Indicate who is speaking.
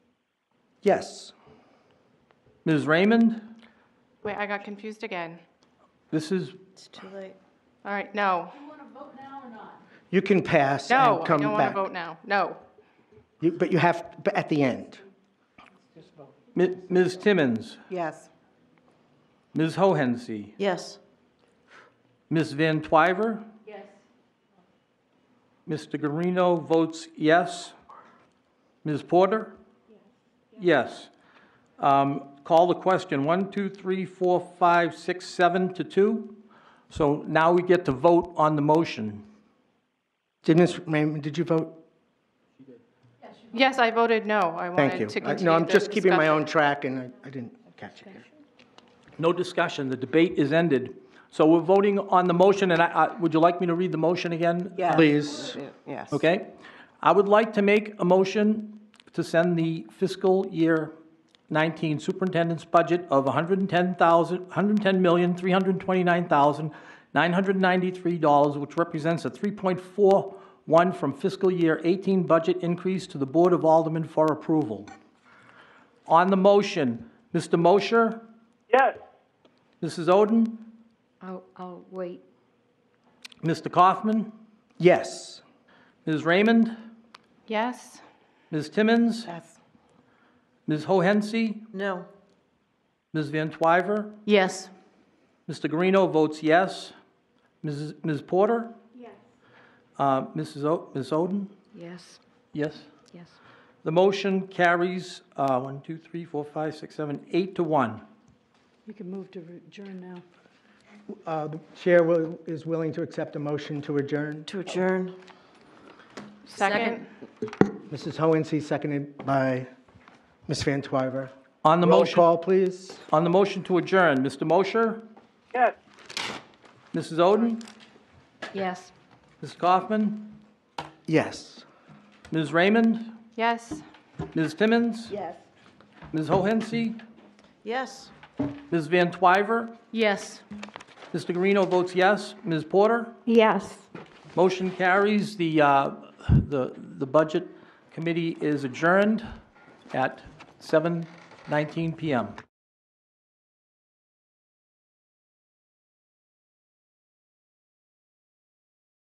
Speaker 1: Yes. Ms. Raymond,
Speaker 2: Wait, I got confused again.
Speaker 1: this is,
Speaker 3: It's too late.
Speaker 2: All right, no,
Speaker 4: You can pass
Speaker 2: no,
Speaker 4: and
Speaker 2: I
Speaker 4: come
Speaker 2: don't want to
Speaker 4: back.
Speaker 2: vote now, no.
Speaker 4: You- But you have, but at the end.
Speaker 1: Mi- Ms. Timmons,
Speaker 3: Yes.
Speaker 1: Ms. Hohensie,
Speaker 3: Yes.
Speaker 1: Ms. Van Twyver? Yes. Mr. Guarino votes yes. Ms. Porter? Yes. Um, Call the question, one, two, three, four, five, six, seven to two. So now we get to vote on the motion.
Speaker 4: Did Ms. Raymond, did you vote?
Speaker 2: Yes, I voted no, I
Speaker 4: Thank you.
Speaker 2: wanted to
Speaker 4: I-
Speaker 2: continue
Speaker 4: No, I'm
Speaker 2: the
Speaker 4: just keeping my
Speaker 2: discussion.
Speaker 4: own track, and I I didn't catch it here.
Speaker 1: No discussion, the debate is ended. So we're voting on the motion, and I, I- would you like me to read the motion again?
Speaker 3: Yeah.
Speaker 4: Please,
Speaker 3: Yes.
Speaker 1: Okay? I would like to make a motion to send the fiscal year 19 superintendent's budget of 110,000, $110,329,993, which represents a 3.41 from fiscal year 18 budget increase to the Board of Aldermen for approval. On the motion, Mr. Mosher? Yes. Mrs. Oden?
Speaker 5: I'll, I'll wait.
Speaker 1: Mr. Kaufman?
Speaker 4: yes.
Speaker 1: Ms. Raymond?
Speaker 2: Yes,
Speaker 1: Ms. Timmons?
Speaker 3: Yes.
Speaker 1: Ms. Hohensie?
Speaker 3: No.
Speaker 1: Ms. Van Twyver?
Speaker 3: Yes.
Speaker 1: Mr. Guarino votes yes. Mrs. Ms. Porter? Yes. Mrs. O, Ms. Oden?
Speaker 5: Yes,
Speaker 1: Yes.
Speaker 5: yes.
Speaker 1: The motion carries, uh, one, two, three, four, five, six, seven, eight to one.
Speaker 3: You can move to adjourn now.
Speaker 4: Uh, The Chair will- is willing to accept a motion to adjourn.
Speaker 3: To adjourn.
Speaker 2: second,
Speaker 4: Mrs. Hohensie, seconded by Ms. Van Twyver.
Speaker 1: On the
Speaker 4: Roll
Speaker 1: motion,
Speaker 4: call, please.
Speaker 1: on the motion to adjourn, Mr. Mosher? Yes. Mrs. Oden?
Speaker 5: Yes.
Speaker 1: Ms. Kaufman?
Speaker 4: Yes.
Speaker 1: Ms. Raymond?
Speaker 2: yes.
Speaker 1: Ms. Timmons?
Speaker 3: Yes.
Speaker 1: Ms. Hohensie?
Speaker 3: Yes.
Speaker 1: Ms. Van Twyver?
Speaker 3: Yes.
Speaker 1: Mr. Guarino votes yes. Ms. Porter? Yes. Motion carries. The, uh, the, the Budget Committee is adjourned at 7:19 PM.